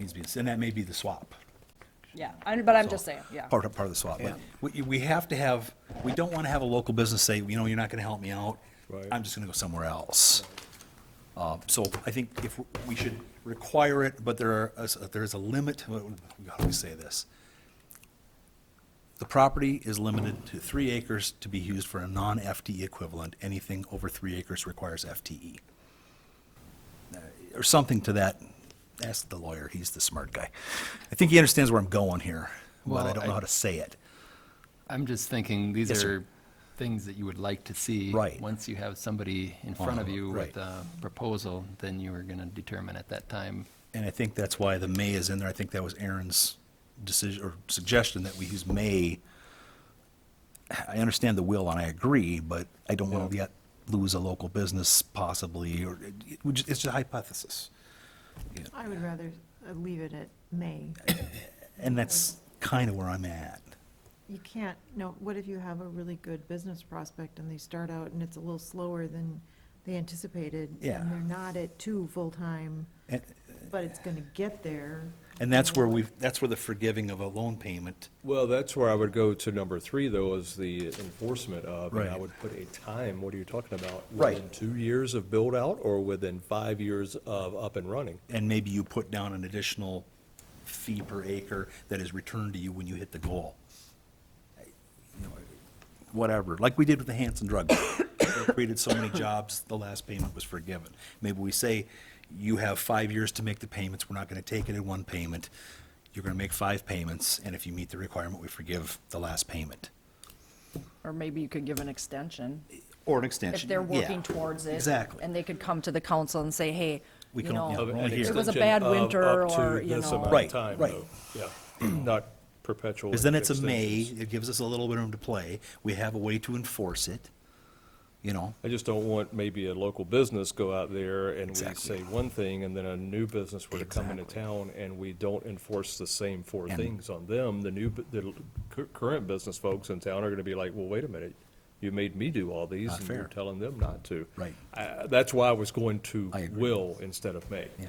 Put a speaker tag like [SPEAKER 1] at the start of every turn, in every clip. [SPEAKER 1] needs to be, and that may be the swap.
[SPEAKER 2] Yeah, I- but I'm just saying, yeah.
[SPEAKER 1] Part, of- part of the swap. But we, we have to have, we don't want to have a local business say, you know, you're not going to help me out.
[SPEAKER 3] Right.
[SPEAKER 1] I'm just going to go somewhere else. Uh, So I think if, we should require it, but there are, uh, there is a limit, we always say this. The property is limited to three acres to be used for a non-FTE equivalent. Anything over three acres requires FTE. Uh, Or something to that. Ask the lawyer, he's the smart guy. I think he understands where I'm going here, but I
[SPEAKER 4] Well,
[SPEAKER 1] don't know
[SPEAKER 4] I-
[SPEAKER 1] how to say it.
[SPEAKER 4] I'm just thinking, these
[SPEAKER 1] Yes, sir.
[SPEAKER 4] are things that you would like to see.
[SPEAKER 1] Right.
[SPEAKER 4] Once you have somebody in front of
[SPEAKER 1] Uh,
[SPEAKER 4] you
[SPEAKER 1] right.
[SPEAKER 4] with a proposal, then you are going to determine at that time.
[SPEAKER 1] And I think that's why the may is in there. I think that was Aaron's decision or suggestion that we use may. I understand the will and I agree, but I don't want to yet lose a local business possibly, or it- it would ju- it's just a hypothesis.
[SPEAKER 5] I would rather uh, leave it at May.
[SPEAKER 1] And that's kind of where I'm at.
[SPEAKER 5] You can't, no, what if you have a really good business prospect and they start out and it's a little slower than they anticipated?
[SPEAKER 1] Yeah.
[SPEAKER 5] And they're not at two full-time,
[SPEAKER 1] And,
[SPEAKER 5] but it's going to get there.
[SPEAKER 1] and that's where we've, that's where the forgiving of a loan payment.
[SPEAKER 3] Well, that's where I would go to number three, though, is the enforcement of, and I
[SPEAKER 1] Right.
[SPEAKER 3] would put a time, what are you talking about?
[SPEAKER 1] Right.
[SPEAKER 3] Within two years of build-out or within five years of up and running?
[SPEAKER 1] And maybe you put down an additional fee per acre that is returned to you when you hit the goal. You know, Whatever, like we did with the Hanson Drug. Mart. They created so many jobs, the last payment was forgiven. Maybe we say, you have five years to make the payments, we're not gonna take it in one payment. You're gonna make five payments, and if you meet the requirement, we forgive the last payment.
[SPEAKER 2] Or maybe you could give an extension
[SPEAKER 1] Or an extension.
[SPEAKER 2] if they're
[SPEAKER 1] yeah.
[SPEAKER 2] working towards it.
[SPEAKER 1] Exactly.
[SPEAKER 2] And they could come to the council and say, hey,
[SPEAKER 1] We
[SPEAKER 2] you
[SPEAKER 1] can- yeah,
[SPEAKER 2] know,
[SPEAKER 1] we're only
[SPEAKER 3] An
[SPEAKER 1] here.
[SPEAKER 2] It was a
[SPEAKER 3] extension
[SPEAKER 2] bad
[SPEAKER 3] of
[SPEAKER 2] winter
[SPEAKER 3] up to
[SPEAKER 2] or, you
[SPEAKER 3] this
[SPEAKER 2] know-
[SPEAKER 3] amount of
[SPEAKER 1] Right,
[SPEAKER 3] time,
[SPEAKER 1] right.
[SPEAKER 3] though. Yeah, not perpetual.
[SPEAKER 1] Because then it's a may,
[SPEAKER 3] extensions.
[SPEAKER 1] it gives us a little bit of room to play, we have a way to enforce it, you know?
[SPEAKER 3] I just don't want maybe a local business go out there and we
[SPEAKER 1] Exactly.
[SPEAKER 3] say one thing and then a new business were to come into town and we don't enforce the same four
[SPEAKER 1] And-
[SPEAKER 3] things on them. The new, bu- the l- cur- current business folks in town are gonna be like, well, wait a minute, you made me do all these
[SPEAKER 1] Not
[SPEAKER 3] and you're
[SPEAKER 1] fair.
[SPEAKER 3] telling them not to.
[SPEAKER 1] Right.
[SPEAKER 3] Uh, that's why I was going to
[SPEAKER 1] I agree.
[SPEAKER 3] will instead of may.
[SPEAKER 1] Yeah.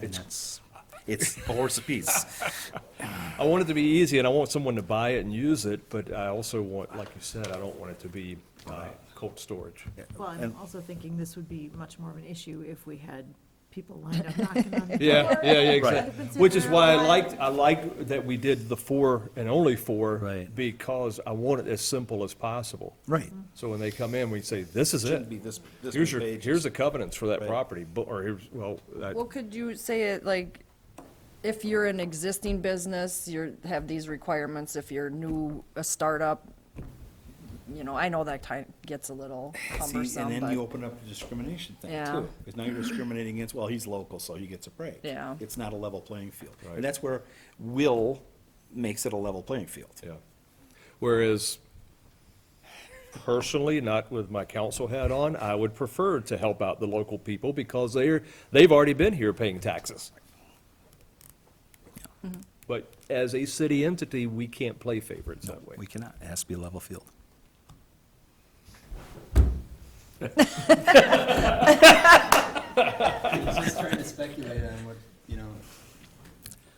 [SPEAKER 1] And that's, it's a horse apiece.
[SPEAKER 3] I want it to be easy, and I want someone to buy it and use it, but I also want, like you said, I don't want it to be uh, cold storage.
[SPEAKER 5] Well, I'm
[SPEAKER 1] And-
[SPEAKER 5] also thinking this would be much more of an issue if we had people lined up knocking on the door.
[SPEAKER 3] Yeah, yeah, yeah,
[SPEAKER 1] Right.
[SPEAKER 3] exactly. Which is why I liked, I liked that we did the four and only four.
[SPEAKER 1] Right.
[SPEAKER 3] Because I want it as simple as possible.
[SPEAKER 1] Right.
[SPEAKER 3] So when they come in, we say, this is it.
[SPEAKER 1] this,
[SPEAKER 3] Here's your, here's the covenants for that
[SPEAKER 1] Right.
[SPEAKER 3] property, bu- or here's, well, that-
[SPEAKER 2] well, could you say it like, if you're an existing business, you're, have these requirements, if you're new, a startup, you know, I know that kind gets a little
[SPEAKER 1] See, and
[SPEAKER 2] cumbersome,
[SPEAKER 1] then you
[SPEAKER 2] but,
[SPEAKER 1] open up the discrimination thing
[SPEAKER 2] Yeah.
[SPEAKER 1] too. Because now you're discriminating against, well, he's local, so he gets a break.
[SPEAKER 2] Yeah.
[SPEAKER 1] It's not a level playing field.
[SPEAKER 3] Right.
[SPEAKER 1] And that's where will makes it a level playing field.
[SPEAKER 3] yeah. Whereas personally, not with my council hat on, I would prefer to help out the local people because they're, they've already been here paying taxes. But as a city entity, we can't play favorites that way.
[SPEAKER 1] We cannot, it has to be a level field.
[SPEAKER 4] Just trying to speculate on what, you know,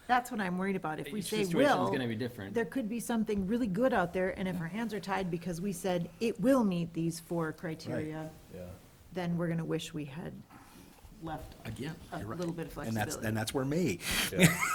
[SPEAKER 5] That's what I'm worried about. If we
[SPEAKER 4] Each
[SPEAKER 5] say
[SPEAKER 4] situation's
[SPEAKER 5] will.
[SPEAKER 4] gonna be different.
[SPEAKER 5] There could be something really good out there, and if our hands are tied because we said it will meet these four criteria,
[SPEAKER 3] Yeah.
[SPEAKER 5] then we're gonna wish we had left
[SPEAKER 1] Again,
[SPEAKER 5] a
[SPEAKER 1] you're right.
[SPEAKER 5] little bit of
[SPEAKER 1] And that's,
[SPEAKER 5] flexibility.
[SPEAKER 1] and that's where may,
[SPEAKER 3] Yeah.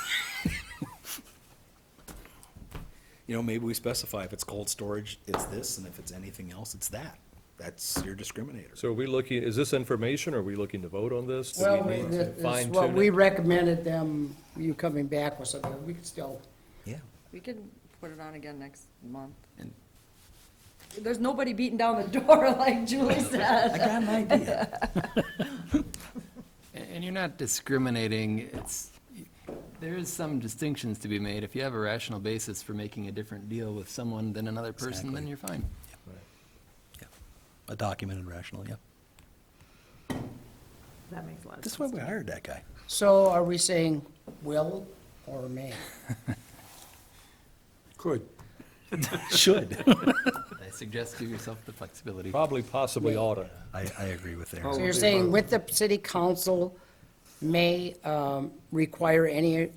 [SPEAKER 1] you know, maybe we specify if it's cold storage, it's this, and if it's anything else, it's that. That's your discriminator.
[SPEAKER 3] So are we looking, is this information, or are we looking to vote on this? Do we
[SPEAKER 6] Well,
[SPEAKER 3] need to
[SPEAKER 6] it's
[SPEAKER 3] fine
[SPEAKER 6] what
[SPEAKER 3] tune
[SPEAKER 6] we
[SPEAKER 3] it?
[SPEAKER 6] recommended them, you coming back with something, we could still,
[SPEAKER 1] Yeah.
[SPEAKER 2] we could put it on again next month. There's nobody beating down the door like Julie said.
[SPEAKER 1] I got an idea.
[SPEAKER 4] A- And you're not discriminating, it's, there is some distinctions to be made. If you have a rational basis for making a different deal with someone than another person, then
[SPEAKER 1] Exactly.
[SPEAKER 4] you're fine.
[SPEAKER 1] Yeah. A documented rational, yeah.
[SPEAKER 5] That makes a lot of
[SPEAKER 1] That's why
[SPEAKER 5] sense.
[SPEAKER 1] we hired that guy.
[SPEAKER 6] so are we saying will or may?
[SPEAKER 1] Could. Should.
[SPEAKER 4] I suggest give yourself the flexibility.
[SPEAKER 3] Probably possibly oughta.
[SPEAKER 1] I, I agree with
[SPEAKER 6] So
[SPEAKER 1] Aaron.
[SPEAKER 6] you're saying with the city council may um, require any